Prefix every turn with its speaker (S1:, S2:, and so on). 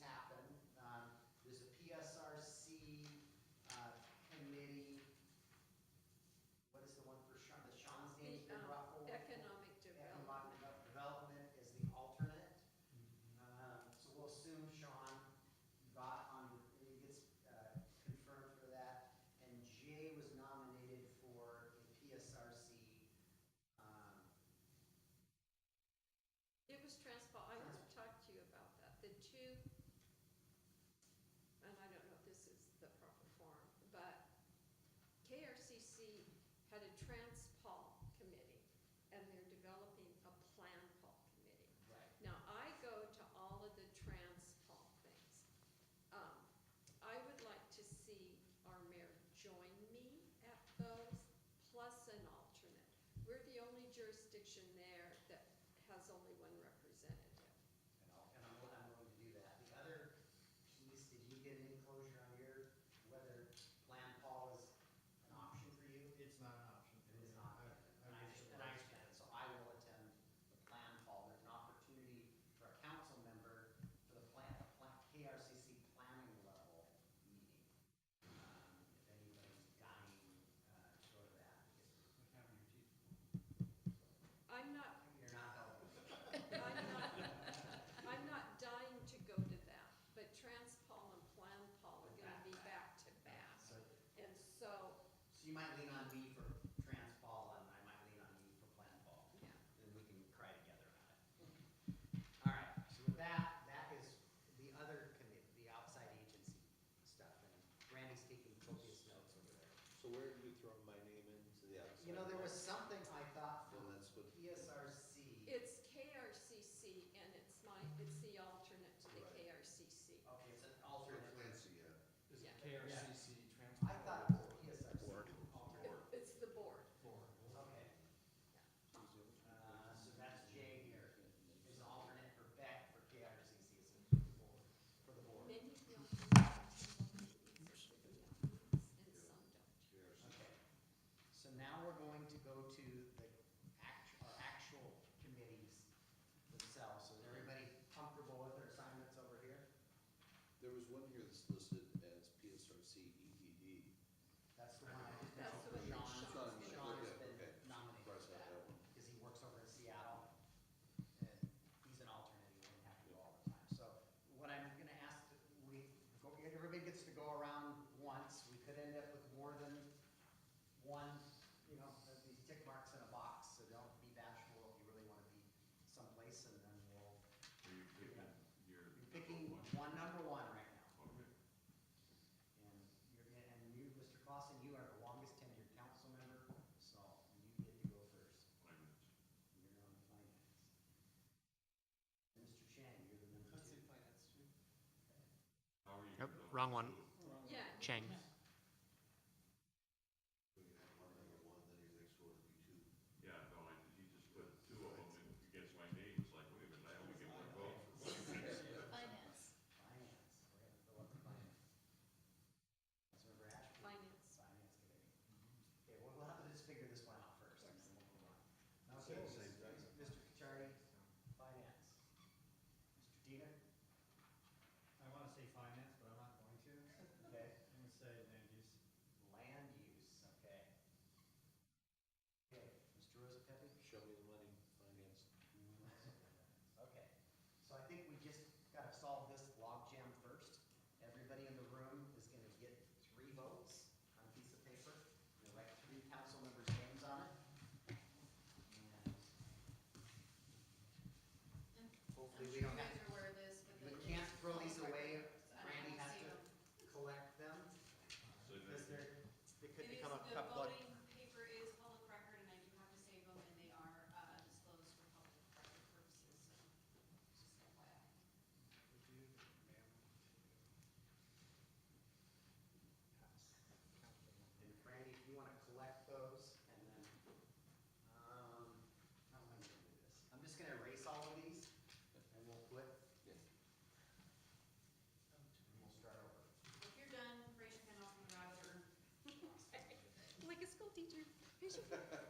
S1: Um, uh, Jim
S2: um,
S1: Rockwell.
S2: Economic
S1: Economic
S2: Development.
S1: Devel- Development is the alternate. Um, So we'll assume Sean got on, he gets uh, confirmed for that. And Jay was nominated for the PSRC. um,
S2: It was transport, I want to talk to you about that. The two, and I don't know if this is the proper form, but KRCC had a transpol committee, and they're developing a plan pol committee.
S1: Right.
S2: Now, I go to all of the transpol things. Um, I would like to see our mayor join me at those, plus an alternate. We're the only jurisdiction there that has only one representative.
S1: And I'll, and I'm, wi- I'm willing to do that. The other piece, did you get any closure on your, whether Plan Paul is an option for you?
S3: It's not an option.
S1: It is not,
S3: I-
S1: and I
S3: I was
S1: understand, and I understand, so I will attend the Plan Paul. There's an opportunity for a council member for the plan, plan, KRCC planning level meeting. Um, If anybody's dying, uh, to go to that, because
S2: I'm not,
S1: you're not helping.
S2: I'm not, I'm not dying to go to that, but transpol and plan pol are gonna be back to back.
S1: So,
S2: And so,
S1: so you might lean on me for Trans Paul, and I might lean on you for Plan Paul.
S2: yeah,
S1: then we can cry together about it. All right, so with that, that is the other committee, the outside agency stuff, and Randy's taking copious notes over there.
S4: So where have you thrown my name into the outside?
S1: You know, there was
S4: world?
S1: something I thought
S4: Well,
S1: from
S4: that's what.
S1: PSRC.
S2: it's KRCC and it's my, it's the alternate to the
S4: Right.
S2: KRCC.
S1: Okay, it's an
S4: For
S1: alternate.
S4: Clancy, yeah.
S3: Is
S2: Yeah.
S3: it KRCC
S1: I
S3: transport?
S1: thought it was PSRC.
S4: Board.
S1: alternate.
S2: It's the board.
S3: Four.
S1: Okay, uh, so that's Jay here, is an alternate for Beck for KRCC, is it for the board?
S2: Many feel and some don't.
S1: Okay, so now we're going to go to the act, our actual committees themselves, so is everybody comfortable with their assignments over here?
S4: There was one here that's listed as PSRC EDD.
S1: That's the one. I-
S2: That's the one that Sean's
S1: Sean,
S2: gonna
S1: Sean has
S4: do.
S1: been
S4: Okay.
S1: nominated
S4: Cross
S1: for
S4: out
S1: that,
S4: that one.
S1: because he works over in Seattle, and he's an alternate, he wouldn't have to go all the time, so what I'm gonna ask, we, go- everybody gets to go around once, we could end up with more than one, you know, of these tick marks in a box, so don't be bashful if you really wanna be someplace, and then we'll,
S5: Are you picking your?
S1: you're picking one number one right now.
S5: Okay.
S1: And you're, and you, Mr. Clausen, you are the longest tenured council member, so you get to go first.
S5: Finance.
S1: You're on finance. And Mr. Chang, you're the number two.
S5: How are you?
S6: Nope,
S5: though?
S6: wrong one.
S2: Yeah,
S6: Chang.
S4: We can have one number one, then your next one would be two.
S5: Yeah, no, I, he just put two of them in against my name, it's like, wait a minute, I only get one vote for one.
S7: Finance.
S1: Finance, we're gonna fill up the finance. Councilmember Ashby.
S2: Finance.
S1: Finance committee. Okay, well, we'll have to just figure this one out first, and then we'll move on.
S4: Same-
S1: Okay,
S4: same thing.
S1: Mr. Kachari, finance. Mr. Diener,
S8: I want to say finance, but I'm not going to.
S1: okay.
S8: I'm going to say land use.
S1: Land use, okay. Okay, Mr. Rosa Pepe?
S4: Show me the money, finance.
S1: Okay, so I think we just gotta solve this logjam first. Everybody in the room is gonna get three votes on a piece of paper, and write three council members' names on it. And Hopefully, we don't have,
S7: I'm sure you guys are aware of this, but.
S1: we
S7: the-
S1: can't throw these away,
S7: I don't
S1: Randy has
S7: see
S1: to
S7: them.
S1: collect them,
S8: Uh,
S5: So
S1: because
S5: then-
S1: they're,
S7: It is,
S1: they could become a
S7: the
S1: cup blood.
S7: voting paper is public record, and I do have to save them, and they are uh, disclosed for public record purposes, so just FYI.
S1: And Randy, if you wanna collect those, and then, um, how am I gonna do this? I'm just gonna erase all of these, and we'll put,
S4: Yeah.
S1: and we'll start over.
S7: If you're done, raise your hand off on the browser.
S2: Like a school teacher. Here's your.